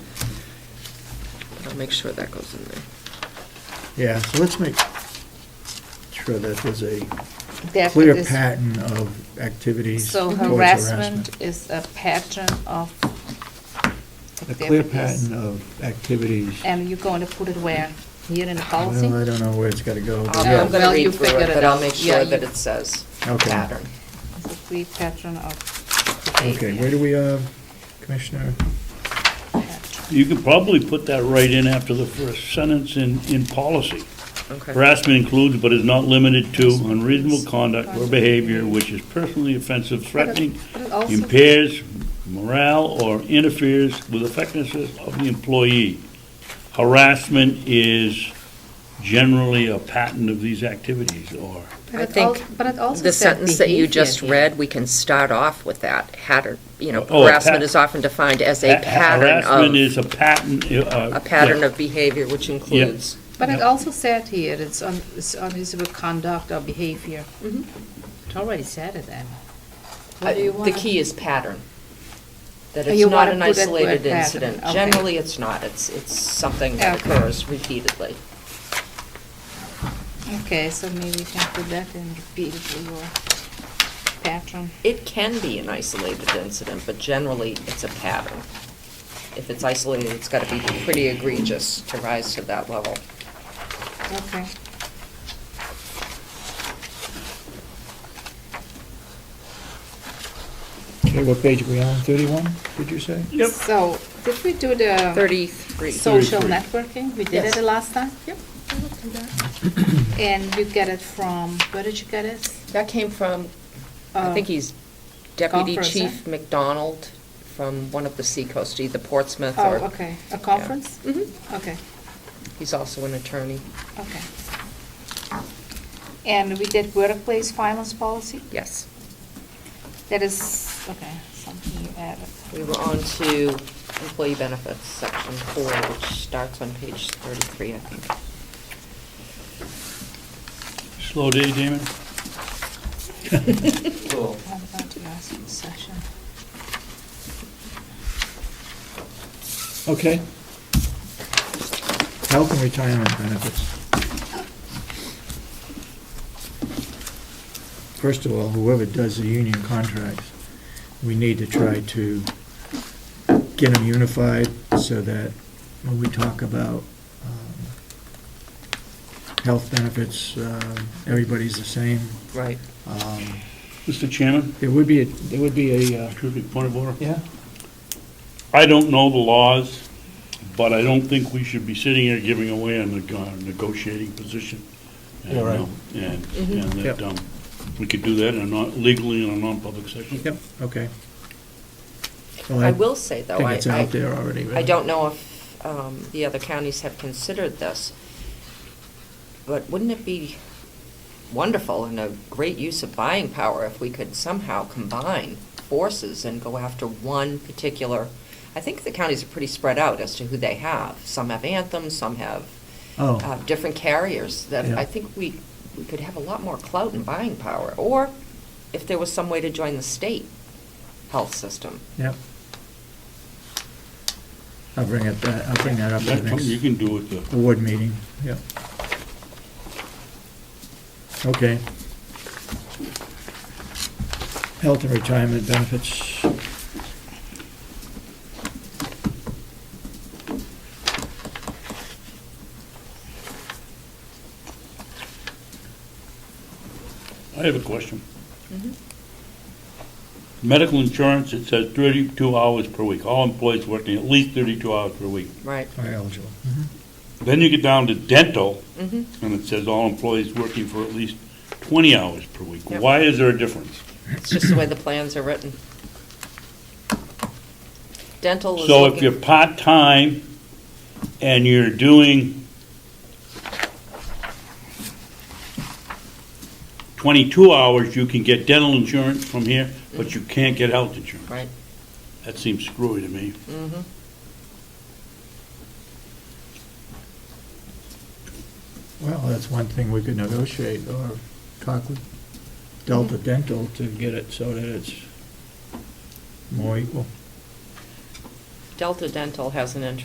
I'll make sure that goes in there. Yeah, so let's make sure that there's a Therefore, clear this- pattern of activities So towards harassment harassment. is a pattern of A clear activities. pattern of activities. And you're going to put it where? Here in the policy? Well, I don't know where it's gotta go, but Yeah. I'm yeah, gonna Oh, Well, you read through it, figured it but I'll out. make Yeah, sure that you- it says Okay. pattern. It's a clear pattern of okay, where do we, uh, Commissioner? You could probably put that right in after the first sentence in, in policy. Okay. Harassment includes but is not limited to unreasonable conduct or behavior which is personally offensive, threatening, But it also- impairs morale, or interferes with effectiveness of the employee. Harassment is generally a pattern of these activities, or but I it think al- but it also The said sentence that you behavior just here. read, we can start off with that, hatter, you know, Oh, a harassment pat- is often defined as a Ha- pattern Harassment of, is a pattern, uh. a pattern of behavior which includes. But it Yeah. also said here, it's un- it's unreasonable conduct or behavior. It already said it then. Mm-hmm. Uh, What do you The wanna- key is pattern. That Oh, it's you not wanna an put it where isolated pattern, incident. okay. Generally, it's not. It's, it's something that Okay. occurs repeatedly. Okay, so maybe you can put that in repeatedly or pattern. It can be an isolated incident, but generally, it's a pattern. If it's isolated, it's got to be pretty egregious to rise to that level. Okay. Okay, what page are we on, thirty-one, did you say? Yep. So, did we do the 33. social 33. networking? We did Yes. it the last time? Yep. And you get it from, where did you get it? That came from, I Uh, think he's Deputy conference, Chief McDonald from one of the seacoast, either Portsmouth Oh, or... okay, a conference? Mm-hmm. Okay, He's also an attorney. okay. And we did workplace violence policy? Yes. That is, okay, something you added. We were on to employee benefits, section four, which starts on page 33, I think. Slow day, Damon? I'm about to ask you a session. Okay. Health and retirement benefits. First of all, whoever does the union contracts, we need to try to get them unified so that when we talk about um, health benefits, um, everybody's the same. Right. Um, Mr. Chairman, There would be, a there would be a, uh, excuse me, point of order. yeah? I don't know the laws, but I don't think we should be sitting here giving away a neg- uh, negotiating position. And, You're right. um, And, and Yep. that, um, we could do that in a non, legally in a non-public session. Yep, okay. Well, I will say, though, think I, it's I- out there already, I right? don't know if um, the other counties have considered this, but wouldn't it be wonderful and a great use of buying power if we could somehow combine forces and go after one particular, I think the counties are pretty spread out as to who they have. Some have Anthem, some have Oh. uh, different carriers, that Yeah. I think we, we could have a lot more clout and buying power. Or if there was some way to join the state health system. Yep. I'll bring it, ba- I'll bring that up at That's the something you next can do with the, board meeting, yep. Okay. Health and retirement benefits. I have a question. Medical insurance, it says thirty-two hours per week, all employees working at least thirty-two hours per week. Right. Are eligible. Then you get down to dental, Mhm. and it says all employees working for at least twenty hours per week. Yep. Why is there a difference? It's just the way the plans are written. Dental is So if you're looking, part-time and you're doing 22 hours, you can get dental insurance from here, but you can't get health insurance. right, Mm-hmm. That seems screwy to me. Well, that's one thing we could negotiate or talk with Delta Dental to get it so that it's more equal. Delta Dental has an interest